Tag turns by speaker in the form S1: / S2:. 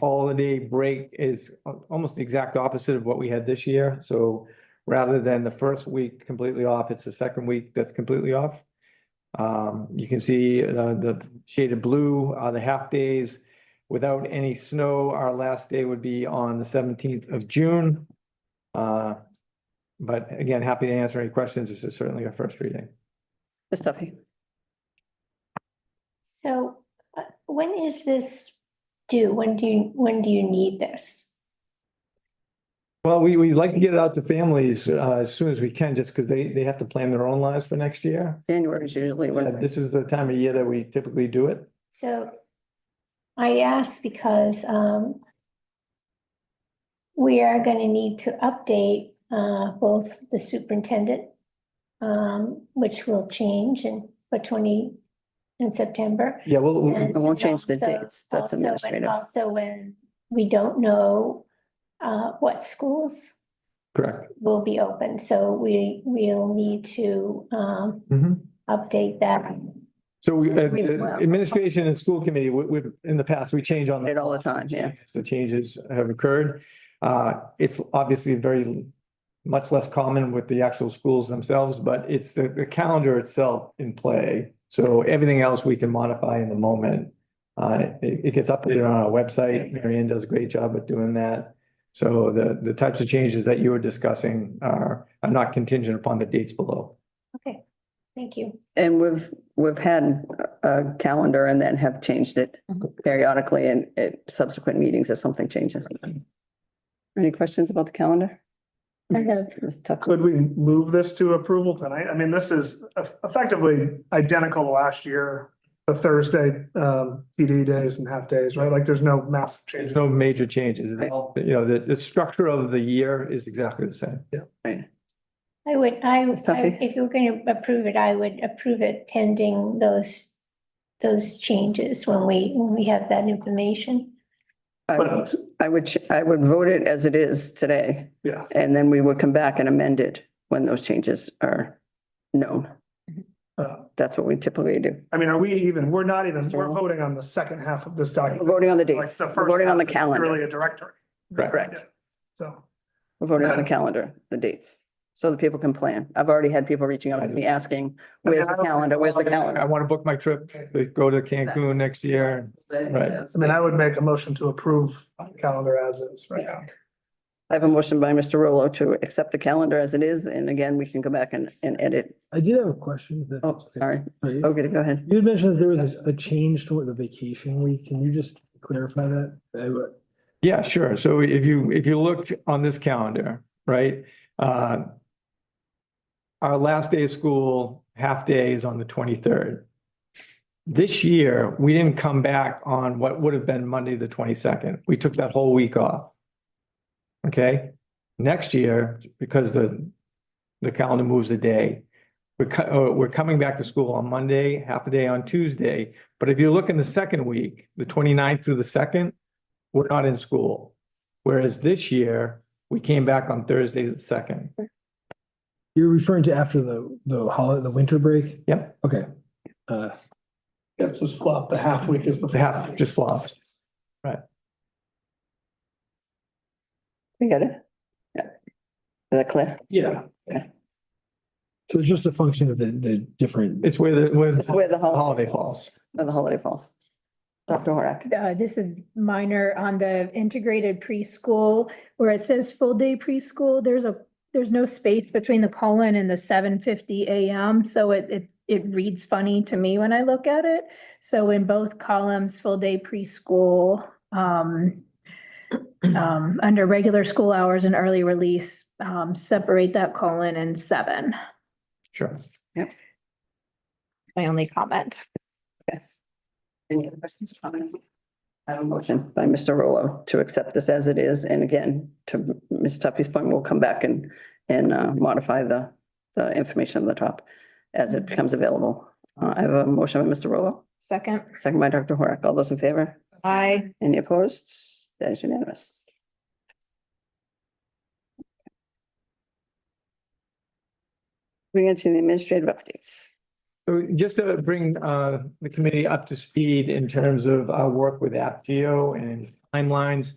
S1: holiday break is al- almost the exact opposite of what we had this year. So rather than the first week completely off, it's the second week that's completely off. Um, you can see uh, the shaded blue are the half days. Without any snow, our last day would be on the seventeenth of June. Uh, but again, happy to answer any questions. This is certainly a first reading.
S2: Ms. Duffy.
S3: So uh, when is this due? When do you, when do you need this?
S1: Well, we, we like to get it out to families uh, as soon as we can, just because they, they have to plan their own lives for next year.
S2: January is usually
S1: Uh,
S2: when,
S1: This is the time of year that we typically do it.
S3: So I ask because um we are gonna need to update uh both the superintendent, um, which will change in for twenty in September.
S1: Yeah, well, we-
S3: And
S2: I won't change the
S3: also-
S2: dates. That's
S3: also- and
S2: administrative.
S4: um,
S3: Also when we don't know uh what schools
S1: correct.
S3: will be open, so we, we'll need to, um,
S1: Mhm.
S3: update that.
S1: So we, uh,
S2: We-
S1: the administration and school committee, we, we, in the past, we change on.
S2: It all the time, yeah.
S1: The changes have occurred. Uh, it's obviously very, much less common with the actual schools themselves, but it's the, the calendar itself in play. So everything else we can modify in the moment. Uh, it, it gets updated on our website. Marianne does a great job at doing that. So the, the types of changes that you were discussing are, are not contingent upon the dates below.
S3: Okay, thank you.
S2: and we've, we've had a calendar and then have changed it
S4: Mm-hmm.
S2: periodically and at subsequent meetings if something changes. Any questions about the calendar?
S4: I have.
S2: Ms. Tucker,
S4: Could we move this to approval tonight? I mean, this is eff- effectively identical to last year. The Thursday, um, PD days and half days, right? Like there's no massive
S1: There's
S4: changes.
S1: no major changes. It's all- You know, the, the structure of the year is exactly the same.
S3: I would, I, I-
S2: Sophie?
S3: if you're gonna approve it, I would approve it pending those, those changes when we, when we have that information.
S2: I would-
S4: But,
S2: I would, ch- I would vote it as it is today,
S4: yeah,
S2: and then we would come back and amend it when those changes are known.
S4: uh,
S2: That's what we typically do.
S4: I mean, are we even, we're not even, we're voting on the second half of this
S2: We're
S4: document.
S2: voting on the
S4: Like
S2: dates,
S4: the
S2: We're
S4: first
S2: voting on the
S4: half is Really
S2: calendar,
S4: a directory,
S2: correct.
S4: so.
S2: We're voting on the calendar, the dates, so that people can plan. I've already had people reaching out to me asking, where's the calendar, where's the
S1: I
S2: calendar?
S1: want to book my trip, to go to Cancun next year. Right.
S4: I mean, I would make a motion to approve the calendar as is right now.
S2: I have a motion by Mr. Rolo to accept the calendar as it is, and again, we can go back and, and edit.
S5: I did have a question. that-
S2: Oh, sorry.
S5: Sorry.
S2: Okay, go ahead.
S5: You had mentioned that there was a- a change to the vacation week. Can you just clarify that? I would-
S1: Yeah, sure. So if you, if you look on this calendar, right? uh, Our last day of school, half day is on the twenty-third. This year, we didn't come back on what would have been Monday, the twenty-second. We took that whole week off. Okay, next year, because the, the calendar moves a day, we're, co- uh, we're coming back to school on Monday, half a day on Tuesday. But if you look in the second week, the 29th through the second, we're not in school. Whereas this year, we came back on Thursday the second.
S5: You're referring to after the, the holiday, the winter break?
S1: Yep.
S5: Okay. Uh,
S4: That's just flop, the half week is the.
S1: The half just flopped.
S2: We got it? Yeah. Is that clear?
S5: yeah.
S2: Okay.
S5: So it's just a function of the, the different,
S1: It's where the, where the
S2: Where the holiday,
S1: holiday falls.
S2: where the holiday falls. Dr. Horak,
S6: Uh, this is minor on the integrated preschool, where it says full day preschool, there's a, there's no space between the colon and the seven fifty AM, so it, it, it reads funny to me when I look at it. So in both columns, full day preschool, um, um, under regular school hours and early release, um, separate that colon and seven.
S1: Sure.
S6: My only comment.
S2: yes. Any other questions or comments? I have a motion by Mr. Rolo to accept this as it is, and again, to Ms. Tuffy's point, we'll come back and, and uh, modify the, the information on the top as it becomes available. Uh, I have a motion by Mr. Rolo,
S6: Second.
S2: second by Dr. Horak. All those in favor?
S6: Aye.
S2: Any opposed? That is unanimous. Moving on to the administrative updates.
S1: So just to bring uh, the committee up to speed in terms of our work with AppGeo and timelines.